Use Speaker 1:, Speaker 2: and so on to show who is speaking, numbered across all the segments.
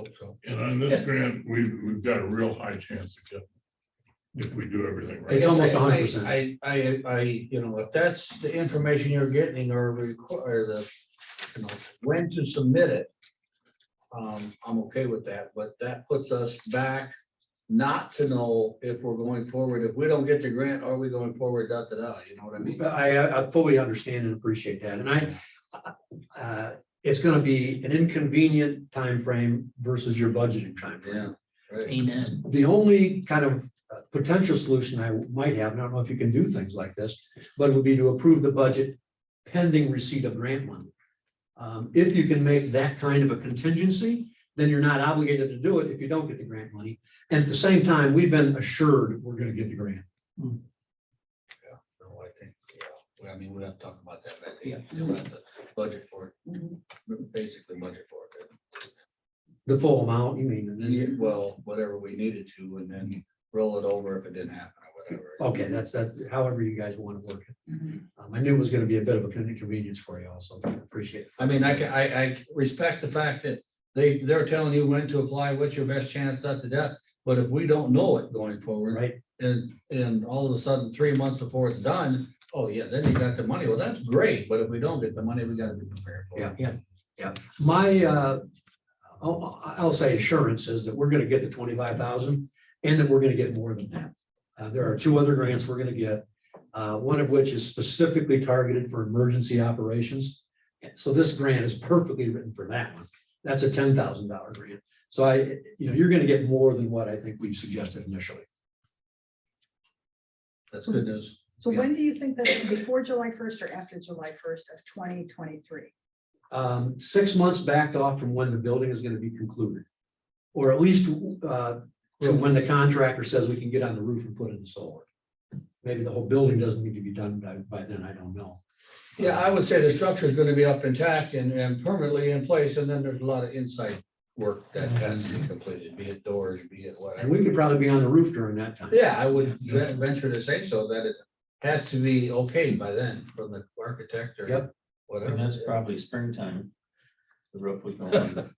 Speaker 1: it, so.
Speaker 2: And on this grant, we've, we've got a real high chance of getting, it if we do everything
Speaker 1: I
Speaker 2: right.
Speaker 3: It's
Speaker 1: guess
Speaker 3: almost
Speaker 1: I-
Speaker 3: 100%.
Speaker 1: I, I, I, you know, if that's the information you're getting or require the, you know, when to submit it. Um, I'm okay with that, but that puts us back not to know if we're going forward. If we don't get the grant, are we going forward, da, da, da, you know what I mean?
Speaker 3: I, I fully understand and appreciate that, and I, uh, it's gonna be an inconvenient time frame versus your budgeting
Speaker 1: Yeah.
Speaker 3: timeframe.
Speaker 1: right.
Speaker 4: Amen.
Speaker 3: The only kind of uh, potential solution I might have, and I don't know if you can do things like this, but would be to approve the budget pending receipt of grant money. Um, if you can make that kind of a contingency, then you're not obligated to do it if you don't get the grant money. And at the same time, we've been assured we're gonna get the grant.
Speaker 1: So I think, yeah, well, I mean, we have to talk about that, but I think you'll have to budget for it. Basically budget for it.
Speaker 3: The full amount, you mean, and then
Speaker 1: Yeah, well, whatever we needed to, and then roll it over if it didn't happen or whatever.
Speaker 3: Okay, that's, that's however you guys want to work it. Um, I knew it was gonna be a bit of a inconvenience for you also. I Appreciate it.
Speaker 1: I mean, I can, I, I respect the fact that they, they're telling you when to apply, what's your best chance, da, da, da. But if we don't know it going forward,
Speaker 3: Right?
Speaker 1: and, and all of a sudden, three months before it's done, oh, yeah, then you got the money. Well, that's great, but if we don't get the money, we gotta be prepared for it.
Speaker 3: My, uh, I'll, I'll say assurance is that we're gonna get the twenty-five thousand and that we're gonna get more than that. Uh, there are two other grants we're gonna get, uh, one of which is specifically targeted for emergency operations. So this grant is perfectly written for that one. That's a ten thousand dollar grant. So I, you know, you're gonna get more than what I think we've suggested initially.
Speaker 1: That's good news.
Speaker 5: So when do you think that's before July first or after July first of twenty twenty-three?
Speaker 3: um, six months backed off from when the building is gonna be concluded. Or at least, uh, to when the contractor says we can get on the roof and put in the solar. Maybe the whole building doesn't need to be done by, by then, I don't know.
Speaker 1: Yeah, I would say the structure is gonna be up intact and, and permanently in place, and then there's a lot of inside work that has
Speaker 3: Mm-hmm.
Speaker 1: to be completed, be it doors, be it whatever.
Speaker 3: And we could probably be on the roof during that time.
Speaker 1: Yeah, I would ve- venture to say so, that it has to be okayed by then from the architect or.
Speaker 3: Yep.
Speaker 1: Whatever.
Speaker 4: And that's probably springtime. The roof would go on.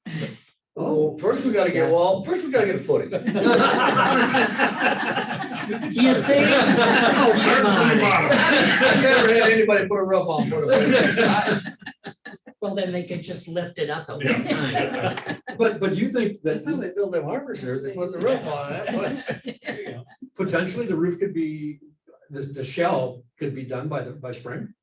Speaker 1: Oh, first we gotta get, well, first we gotta get a footing.
Speaker 4: You think?
Speaker 3: Oh, come
Speaker 1: I've never had anybody put a roof on. put a footing. I-
Speaker 4: Well, then they could just lift it up at
Speaker 2: Yeah.
Speaker 4: one time.
Speaker 3: But, but you think
Speaker 1: That's how they
Speaker 3: that
Speaker 1: build them harbors here, they put the roof on it.
Speaker 3: potentially the roof could be, the, the shell could be done by the, by spring?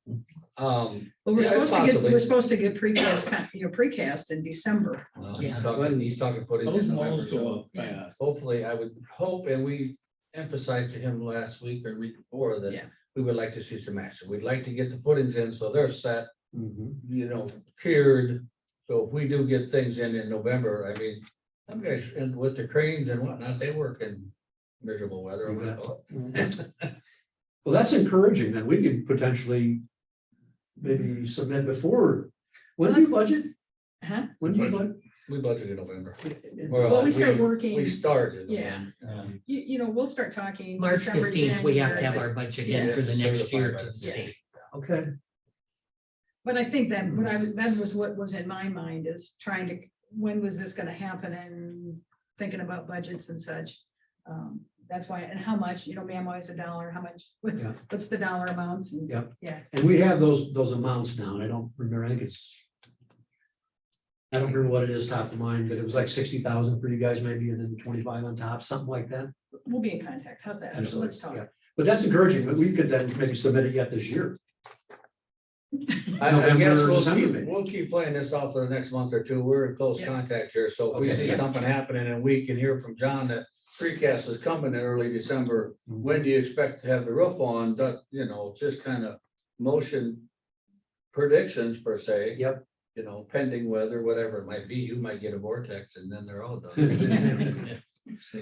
Speaker 1: Um.
Speaker 5: Well, we're
Speaker 1: Yeah,
Speaker 5: supposed to get,
Speaker 1: possibly.
Speaker 5: we're supposed to get precast, con- you know, precast in December.
Speaker 1: well,
Speaker 4: Yeah.
Speaker 1: he's talking- He's talking footage. in
Speaker 6: Those
Speaker 1: November,
Speaker 6: malls
Speaker 1: so-
Speaker 6: go up fast.
Speaker 1: hopefully, I would hope, and we emphasized to him last week or week before that
Speaker 5: Yeah.
Speaker 1: we would like to see some action. We'd like to get the footings in, so they're set,
Speaker 3: Mhm.
Speaker 1: you know, cured. So if we do get things in in November, I mean, some guys, and with the cranes and whatnot, they work in miserable weather. I'm gonna call
Speaker 3: Well, that's encouraging, then we could potentially maybe submit before, when do you budget?
Speaker 5: Huh?
Speaker 3: When do you budget?
Speaker 1: it. We budgeted in November.
Speaker 3: Well,
Speaker 1: Well,
Speaker 5: Well, we start
Speaker 1: We
Speaker 5: working,
Speaker 1: started.
Speaker 5: Yeah.
Speaker 1: Um,
Speaker 5: you, you know, we'll start talking.
Speaker 4: March
Speaker 5: December,
Speaker 4: fifteenth, we have to have
Speaker 5: January,
Speaker 4: our budget in
Speaker 1: Yeah.
Speaker 4: for the next year to the
Speaker 1: Yeah.
Speaker 4: state.
Speaker 3: Okay,
Speaker 5: But I think that, what I, that was what was in my mind is trying to, when was this gonna happen and thinking about budgets and such. Um, That's why, and how much, you know, ma'am, always a dollar, how much, what's,
Speaker 3: Yeah.
Speaker 5: what's the dollar amounts and,
Speaker 3: Yep.
Speaker 5: yeah.
Speaker 3: and we have those, those amounts now, and I don't remember, I think it's. I don't remember what it is top of mind, but it was like sixty thousand for you guys maybe, and then twenty-five on top, something like that.
Speaker 5: We'll be in contact, how's that, So let's talk.
Speaker 3: Yeah. But that's encouraging, but we could then maybe submit it yet this year.
Speaker 1: I I guess
Speaker 3: November,
Speaker 1: we'll
Speaker 3: December,
Speaker 1: keep,
Speaker 3: maybe.
Speaker 1: we'll keep playing this off for the next month or two. We're in close
Speaker 5: Yeah.
Speaker 1: contact here, so if we
Speaker 3: Okay.
Speaker 1: see something happening and we can hear from John that precast is coming in early December,
Speaker 3: Mm-hmm.
Speaker 1: when do you expect to have the roof on? That, you know, just kind of motion predictions per se.
Speaker 3: Yep.
Speaker 1: You know, pending weather, whatever it might be, you might get a vortex and then they're all done.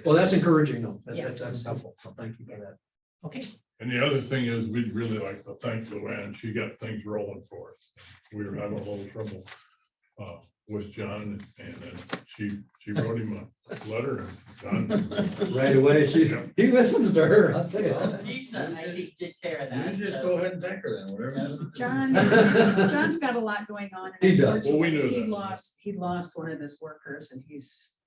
Speaker 3: Well, that's encouraging though, That's-
Speaker 5: Yeah.
Speaker 3: that's, that's helpful, so thank you for that.
Speaker 4: Okay,
Speaker 2: And the other thing is, we'd really like to thank Luann. She got things rolling for us. We were having a little trouble uh, with John and then she, she wrote him a letter. and John-
Speaker 3: Right away, she,
Speaker 2: Yeah.
Speaker 3: he listens to her, I'll tell you.
Speaker 4: Lisa, I think took care of that.
Speaker 1: You just
Speaker 4: so-
Speaker 1: go ahead and thank her then, whatever.
Speaker 5: John,
Speaker 3: that.
Speaker 5: John's got a lot going on. and
Speaker 3: He does.
Speaker 2: Well, we knew
Speaker 5: unfortunately, He
Speaker 2: that.
Speaker 5: lost, he lost one of his workers and he's